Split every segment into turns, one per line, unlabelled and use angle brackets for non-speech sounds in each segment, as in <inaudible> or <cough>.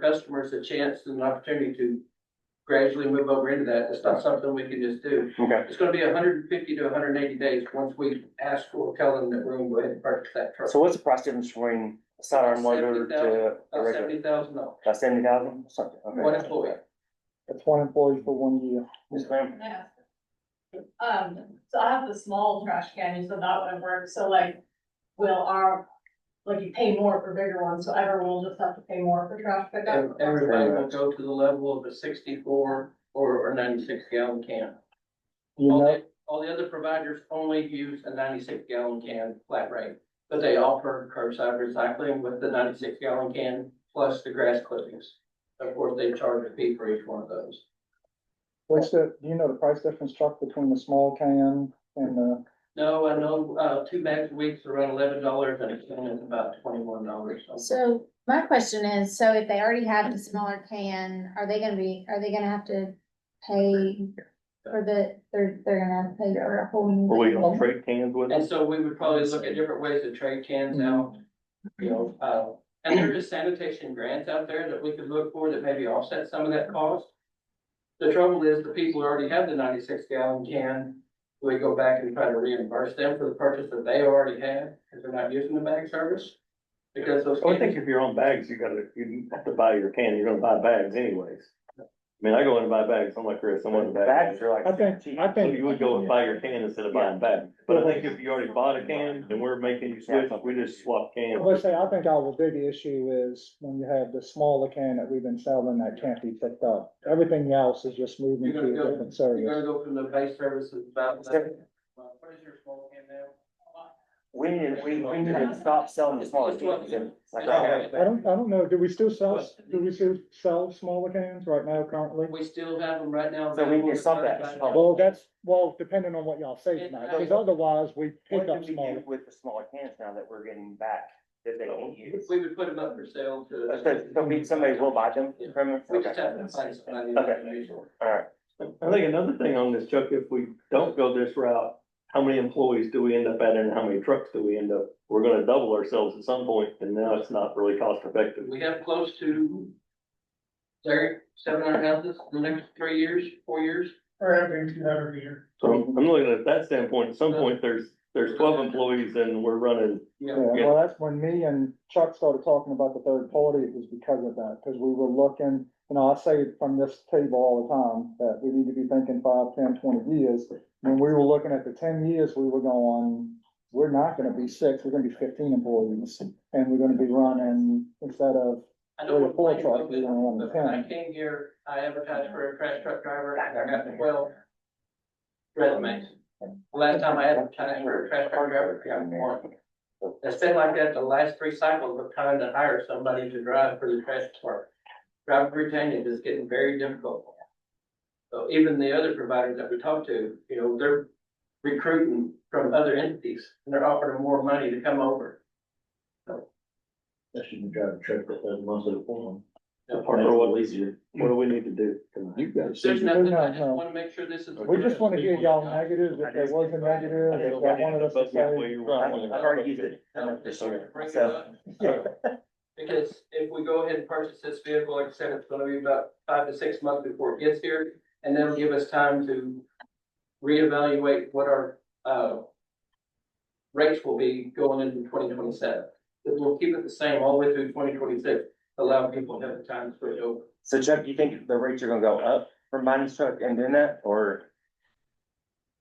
for customers a chance and an opportunity to gradually move over into that. It's not something we can just do.
Okay,
It's gonna be hundred and fifty to hundred and eighty days once we ask for, tell them that we're gonna go ahead and purchase that truck.
so what's the price difference between a sidearm loader to a
About
regular,
seventy thousand dollars,
about seventy thousand, something? okay.
one employee.
That's one employee for one year.
Yes, ma'am.
Yeah. Um, so I have the small trash can, so that would work, so like, will our, like you pay more for bigger ones, so everyone will just have to pay more for trash
And
pickup?
everybody will go to the level of a sixty-four or, or ninety-six gallon can.
Do you
All
know,
the, all the other providers only use a ninety-six gallon can flat rate, but they offer curbside recycling with the ninety-six gallon can plus the grass clippings. Of course, they charge a fee for each one of those.
what's the, do you know the price difference, Chuck, between the small can and the,
No, I know, uh, two bags a week's around eleven dollars and a can is about twenty-one dollars.
So my question is, so if they already have the smaller can, are they gonna be, are they gonna have to pay for the, they're, they're gonna have to pay for a whole new?
Are we gonna trade cans with
And
us?
so we would probably look at different ways to trade cans out, you know, uh, and there are just sanitation grants out there that we could look for that maybe offset some of that cost. The trouble is the people who already have the ninety-six gallon can, we go back and try to reimburse them for the purchase that they already had, because they're not using the bag service. Because those.
I would think if you're on bags, you gotta, you have to buy your can, you're gonna buy bags anyways. I mean, I go in and buy bags, I'm like, Chris, I want a bag.
Bags are like.
I think, I
So
think,
you would go and buy your can instead of buying bags, but I think if you already bought a can, and we're making you switch, we just swap cans.
let's say, I think our big issue is when you have the smaller can that we've been selling that can't be picked up. Everything else is just moving to
You're
a
gonna go-
different
You're gonna
service.
go from the base services about.
Sir.
Well, What is your small can now?
We need, we, we need to stop selling the smaller cans. Like, I
I
have-
don't, I don't know, do we still sell, do we still sell smaller cans right now currently?
We still have them right now.
So we need to stop that.
available.
Well, that's, well, depending on what y'all say tonight, because otherwise we
What
pick
do
up
we do
smaller.
with the smaller cans now that we're getting back that they can use?
We would put them up for sale
Uh,
to.
So, so we, somebody will buy them from us?
We just
Okay.
have to find somebody.
Okay. Alright,
I think another thing on this, Chuck, if we don't go this route, how many employees do we end up at and how many trucks do we end up? We're gonna double ourselves at some point and now it's not really cost effective.
We have close to Larry, seven hundred houses in the next three years, four years.
So I'm I'm looking at that standpoint, at some point, there's, there's twelve employees and we're running,
Yeah, well, that's when me and Chuck started talking about the third party, it was because of that, because we were looking, you know, I say from this table all the time, that we need to be thinking five, ten, twenty years. When we were looking at the ten years, we were going, we're not gonna be six, we're gonna be fifteen employees, and we're gonna be running, instead of,
I don't
Well, the four
complain about
trucks, we don't want
it,
to
but when I
count.
came here, I advertised for a trash truck driver and I got twelve resumes. Last time I advertised for a trash truck driver, I got one. It's been like that the last three cycles of trying to hire somebody to drive for the trash department. Driver retaining is getting very difficult. So even the other providers that we talk to, you know, they're recruiting from other entities and they're offering more money to come over.
That shouldn't drive a truck that does most of the form.
Part of what-
easier.
what do we need to do? tonight?
You've got.
There's nothing, I just
no.
wanna make sure this is.
we just wanna hear y'all negatives, if there was a negative, if y'all wanted us to say.
I've I've already used it.
No, just wanted to bring it
So,
up. <laughs> Because if we go ahead and purchase this vehicle, like I said, it's gonna be about five to six months before it gets here, and that'll give us time to reevaluate what our, uh, rates will be going into twenty twenty-seven. We'll keep it the same all the way through twenty twenty-six, allow people to have the time to switch over.
so Chuck, you think the rates are gonna go up from buying this truck and doing that, or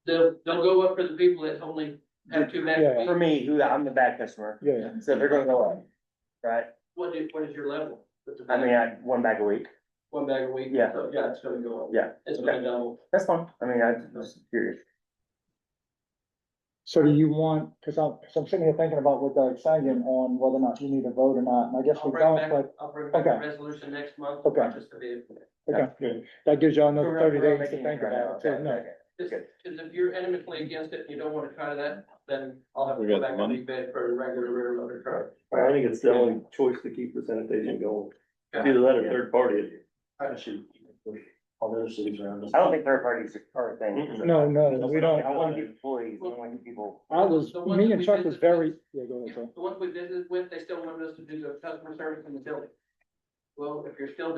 They'll, they'll go up for the people that only have two
Yeah.
bags.
for me, who, I'm the bad customer,
Yeah,
so they're gonna go up, right?
What is, what is your level? with the
I mean,
bag?
I, one bag a week,
One bag a week?
Yeah.
So, Yeah, it's gonna go up.
Yeah.
It's gonna double.
that's fine, I mean, I'm just curious.
so do you want, cause I'm, cause I'm sitting here thinking about what Doug's saying on whether or not you need a vote or not, and I guess
I'll
we
bring
don't,
back,
but.
I'll bring back a
Okay.
resolution next month.
Okay.
Purchase the vehicle.
Okay, that gives y'all another
We're-
thirty
we're
days to
making
think
right
about
now.
it, too. no,
Okay.
Just,
Good.
cause if you're adamantly against it, and you don't wanna try that, then I'll have to
We
go
got the
back
money?
and rebid for a regular rear loader truck.
I think it's the only choice to keep the sanitation going. Either that or third party.
All the other cities around us.
I don't think third parties are a thing.
Mm-mm.
no, no, we don't.
I wanna get employees, I don't wanna get people.
I was,
The ones
me
that
and
we
Chuck
did
was
this
very,
with-
yeah, go ahead, Chuck.
The ones we visited with, they still wanted us to do the customer service in the building. Well, if you're still